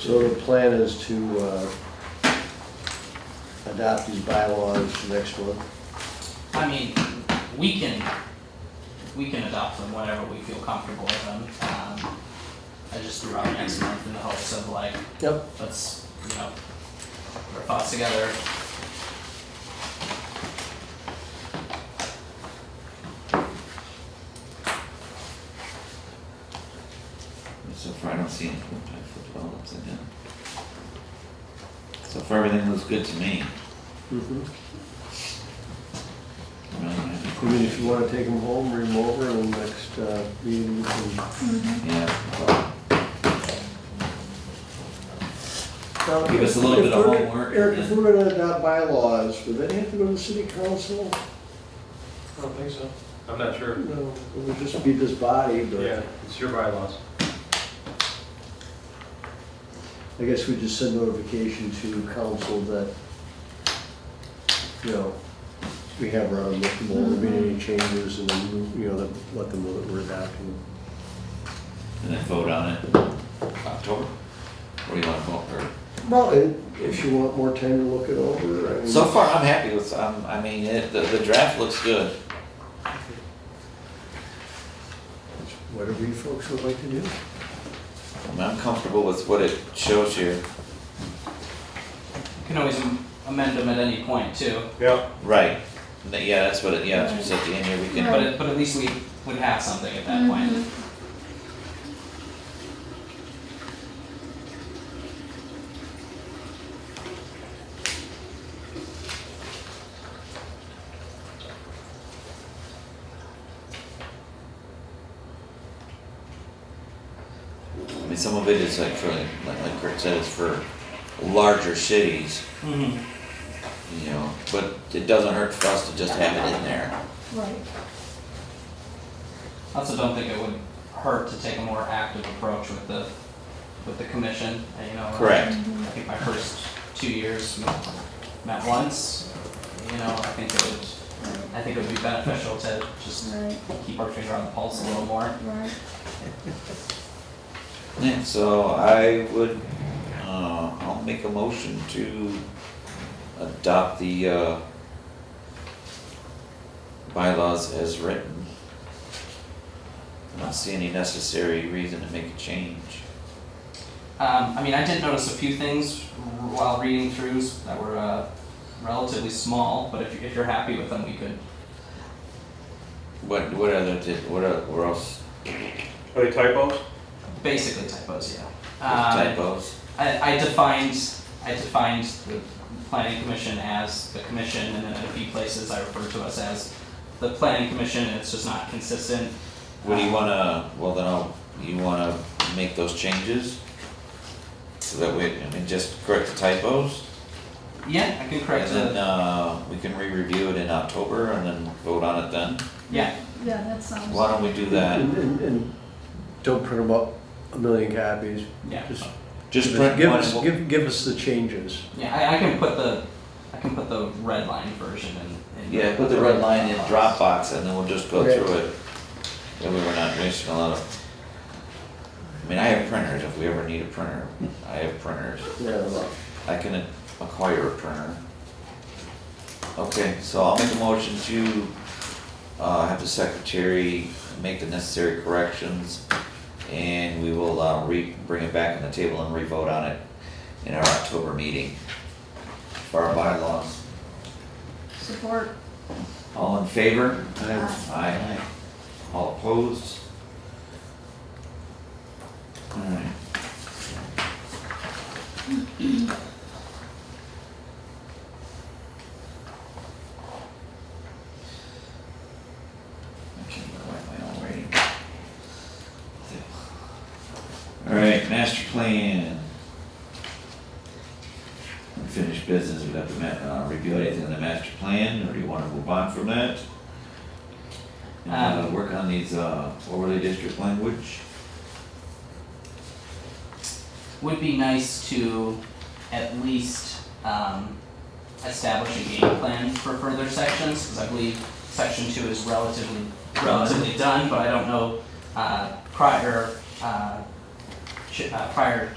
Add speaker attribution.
Speaker 1: So the plan is to uh, adopt these bylaws next month.
Speaker 2: I mean, we can, we can adopt them whenever we feel comfortable with them. Um, I just threw out next month in the hopes of like,
Speaker 1: Yep.
Speaker 2: let's, you know, put our thoughts together.
Speaker 3: So far, I don't see any point I flipped it all upside down. So far, everything looks good to me. I
Speaker 1: I
Speaker 3: really don't have any
Speaker 1: mean, if you want to take them home, bring them over, and next uh, meeting, you can-
Speaker 3: questions. Yeah,
Speaker 1: Now,
Speaker 3: Give us a little
Speaker 1: if
Speaker 3: bit of
Speaker 1: we're-
Speaker 3: homework and
Speaker 1: Eric, if
Speaker 3: then-
Speaker 1: we're going to adopt bylaws, would that have to go to the city council?
Speaker 4: I don't think so. I'm not sure.
Speaker 1: No, it would just be this body,
Speaker 4: Yeah,
Speaker 1: but
Speaker 4: it's your bylaws.
Speaker 1: I guess we just send notification to council that, you know, we have our own, if there have been any changes, and then, you know, let them know that we're adopting.
Speaker 3: and then vote on it October. What do you want to vote for?
Speaker 1: Well, and if you want more time to look it over, I mean.
Speaker 3: So far, I'm happy with, um, I mean, it, the, the draft looks good.
Speaker 1: Whatever you folks would like to do.
Speaker 3: I mean, I'm comfortable with what it shows here.
Speaker 2: You can always am- amend them at any point too,
Speaker 4: Yeah.
Speaker 3: Right. N- Yeah, that's what it, yeah, Mm-hmm. it's at the end here, we can,
Speaker 2: but
Speaker 3: but
Speaker 2: it, but at least we would have something at that point.
Speaker 3: I mean, some of it is like for, like- like Kurt said, it's for larger cities,
Speaker 2: Mhm.
Speaker 3: you know, but it doesn't hurt for us to just have it in there.
Speaker 5: Right.
Speaker 2: Also, don't think it would hurt to take a more active approach with the, with the commission, and, you know.
Speaker 3: Correct.
Speaker 2: I think my first two years we met once, you know, I think it would, I think it would be beneficial to just
Speaker 5: Right,
Speaker 2: keep our finger on the pulse a little more.
Speaker 5: right.
Speaker 3: Yeah, so I would, uh, I'll make a motion to adopt the, uh, bylaws as written. I don't see any necessary reason to make a change.
Speaker 2: Um, I mean, I did notice a few things while reading throughs that were, uh, relatively small, but if, you- if you're happy with them, we could,
Speaker 3: What, what other, did- what, oth- what else,
Speaker 4: Are they typos?
Speaker 2: basically typos, yeah. Um,
Speaker 3: typos?
Speaker 2: I, I defined, I defined the planning commission as the commission, and then in a few places I refer to us as the planning commission, and it's just not consistent.
Speaker 3: What do you wanna, well then I'll, you wanna make those changes? So that we, I mean, just correct the typos?
Speaker 2: Yeah, I can correct
Speaker 3: And then,
Speaker 2: the,
Speaker 3: uh, we can re-review it in October and then vote on it then?
Speaker 2: yeah,
Speaker 5: Yeah, that sounds.
Speaker 3: Why don't we do
Speaker 1: And,
Speaker 3: that?
Speaker 1: and- and don't print them up a million copies.
Speaker 2: yeah,
Speaker 1: Just
Speaker 3: Just
Speaker 1: give
Speaker 3: print
Speaker 1: us- give
Speaker 3: one
Speaker 1: us,
Speaker 3: and we'll-
Speaker 1: give, give us the changes.
Speaker 2: yeah, I, I can put the, I can put the red line version in. in
Speaker 3: yeah, put the red line in
Speaker 2: box.
Speaker 3: Dropbox and then we'll just go
Speaker 1: Okay.
Speaker 3: through it. That way we're not wasting a lot of. I mean, I have printers, if we ever need a printer, I have printers,
Speaker 1: Yeah, well,
Speaker 3: I can a- acquire a printer. Okay, so I'll make a motion to, uh, have the secretary make the necessary corrections. And we will, uh, re, bring it back on the table and re-vote on it in our October meeting. For our bylaws.
Speaker 5: Support.
Speaker 3: All in favor?
Speaker 5: Aye.
Speaker 3: Aye. All opposed? Alright. I can't even write my own writing. Alright, master plan. Unfinished business, we have to ma- uh, review anything in the master plan, or do you wanna move on from that? And, uh,
Speaker 2: Um,
Speaker 3: work on these, uh, overlay district language?
Speaker 2: Would be nice to at least, um, establish a game plan for further sections, cause I believe section two is relatively, relatively done, but I don't know, uh, prior, uh, ch- uh, prior